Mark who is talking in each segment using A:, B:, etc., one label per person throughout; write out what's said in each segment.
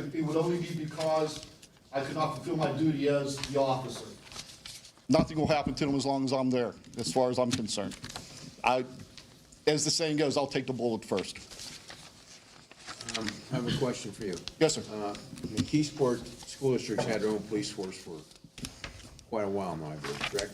A: would only be because I could not fulfill my duty as the officer.
B: nothing will happen to them as long as I'm there, as far as I'm concerned. I, as the saying goes, I'll take the bullet first.
C: I have a question for you.
B: Yes, sir.
C: Uh, The Keysport School District's had their own police force for quite a while now, I believe, correct?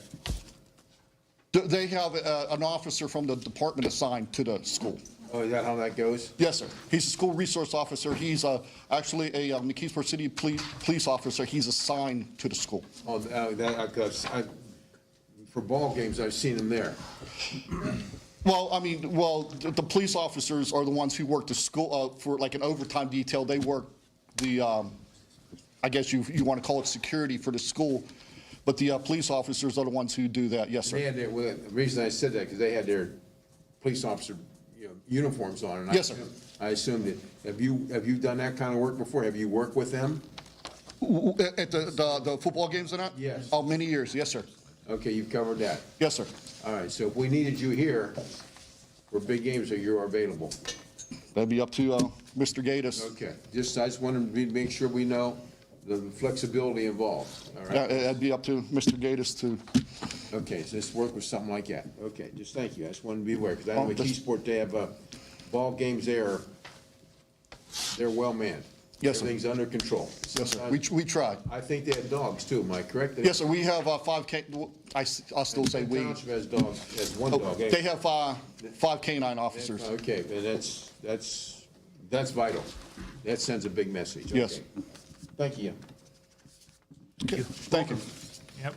B: Th- They have uh, an officer from the department assigned to the school.
C: Oh, is that how that goes?
B: Yes, sir. He's a school resource officer. He's uh, actually a um, McKeesport City Police police officer. He's assigned to the school.
C: Oh, uh, that, I- 'cause I, for ball games, I've seen them there.
B: Well, I mean, well, the, the police officers are the ones who work the school, uh, for like an overtime detail, they work the, um, I guess you, you wanna call it security for the school, but the, uh, police officers are the ones who do that, yes,
C: They
B: sir.
C: had their, well, the reason I said that, because they had their police officer, you know, uniforms on. and I
B: Yes, sir.
C: assumed- I assumed it. Have you, have you done that kind of work before? Have you worked with them?
B: W- w- At the, the, the football games and that?
C: Yes.
B: Oh, many years, yes, sir,
C: Okay, you've covered that.
B: yes, sir.
C: All right, so if we needed you here for big games, are you available?
B: That'd be up to, uh, Mr. Gatus.
C: Okay, just, I just wanted to make sure we know the flexibility involved, all
B: Yeah,
C: right?
B: it- it'd be up to Mr. Gatus to,
C: Okay, so just work with something like that. Okay, just thank you, I just wanted to be aware, because I know
B: Oh,
C: at
B: just-
C: Keysport, they have, uh, ball games there, they're well manned.
B: Yes, sir.
C: Everything's under control.
B: yes, sir, we, tr- we try.
C: I think they have dogs too, am I correct?
B: Yes, sir, we have, uh, five K, I, will still say
C: The
B: we.
C: township has dogs, has one
B: Oh,
C: dog. eh?
B: They have, uh, five canine officers.
C: Okay, and that's, that's, that's vital. That sends a big message.
B: Yes.
C: Okay. Thank you.
B: Okay, Thank you.
D: Yep.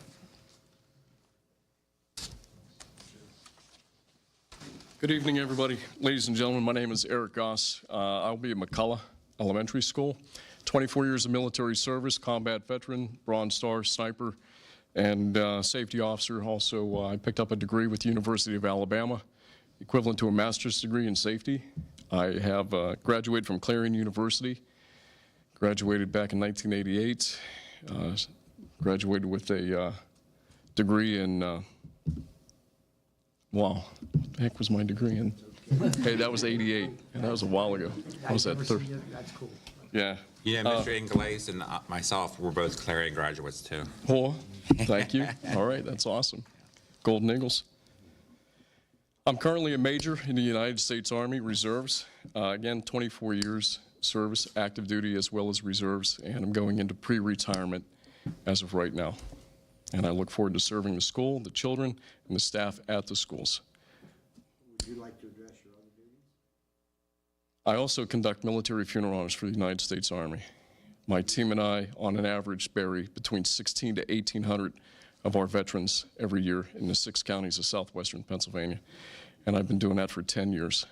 E: Good evening, everybody. Ladies and gentlemen, my name is Eric Goss. Uh, I'll be at McCullough Elementary School. 24 years of military service, combat veteran, Bronze Star sniper, and uh, safety officer. Also, uh, I picked up a degree with the University of Alabama, equivalent to a master's degree in safety. I have uh, graduated from Clarion University, graduated back in 1988, uh, graduated with a uh, degree in uh, Wow. What the heck was my degree in? Hey, that was 88. and That was a while ago. I was at thir-
D: That's cool.
E: Yeah.
F: Yeah, Mr. Inglaze and uh, myself were both Clarion graduates too.
E: Poor. Thank you. All right. That's awesome. Golden Eagles. I'm currently a major in the United States Army Reserves. Uh, again, 24 years service, active duty, as well as reserves. And I'm going into pre retirement as of right now. And I look forward to serving the school, the children, and the staff at the schools.
G: Would you like to address your other duties?
E: I also conduct military funeral honors for the United States Army. My team and I, on an average, bury between 16 to 1,800 of our veterans every year in the six counties of southwestern Pennsylvania. And I've been doing that for 10 years.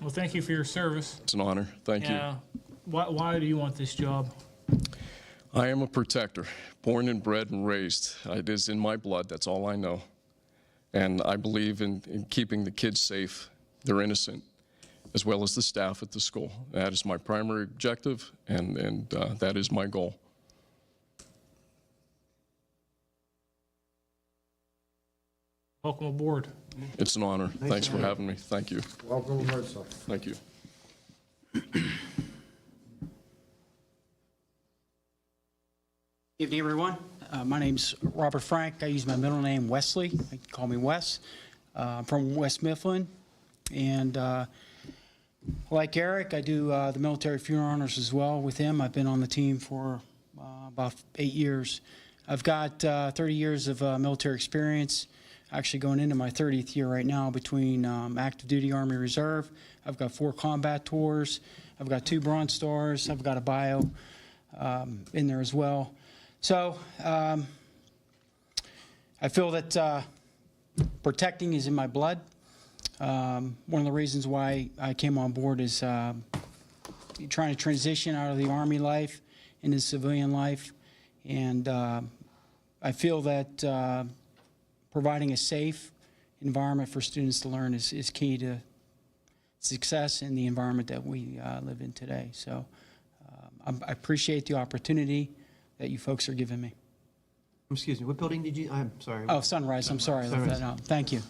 D: Well, thank you for your service.
E: It's an honor. Thank
D: Yeah. Why, why do you want this job?
E: you. I am a protector, born and bred and raised. It is in my blood. That's all I know. And I believe in, in keeping the kids safe, they're innocent, as well as the staff at the school. That is my primary objective, and, and uh, that is my goal.
D: Welcome aboard.
E: It's an honor. Thanks for having me. Thank you.
G: Welcome aboard, sir.
E: Thank you.
H: Evening, everyone. Uh, My name's Robert Frank. I use my middle name Wesley. You can call me Wes. Uh, I'm from West Mifflin. And uh, like Eric, I do uh, the military funeral honors as well with him. I've been on the team for uh, about eight years. I've got uh, 30 years of uh, military experience, actually going into my 30th year right now between um, active duty Army Reserve. I've got four combat tours. I've got two Bronze Stars. I've got a bio um, in there as well. So um, I feel that uh, protecting is in my blood. Um, One of the reasons why I came on board is um, trying to transition out of the Army life into civilian life. And uh, I feel that uh, providing a safe environment for students to learn is is key to success in the environment that we uh, live in today. So um, I'm- I appreciate the opportunity that you folks are giving me.
I: Excuse me, what building did you, I'm sorry.
H: Oh, Sunrise, I'm sorry, I left that out. Thank you.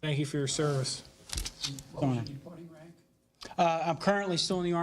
D: Thank you for your service.
H: Uh, I'm currently still in the Army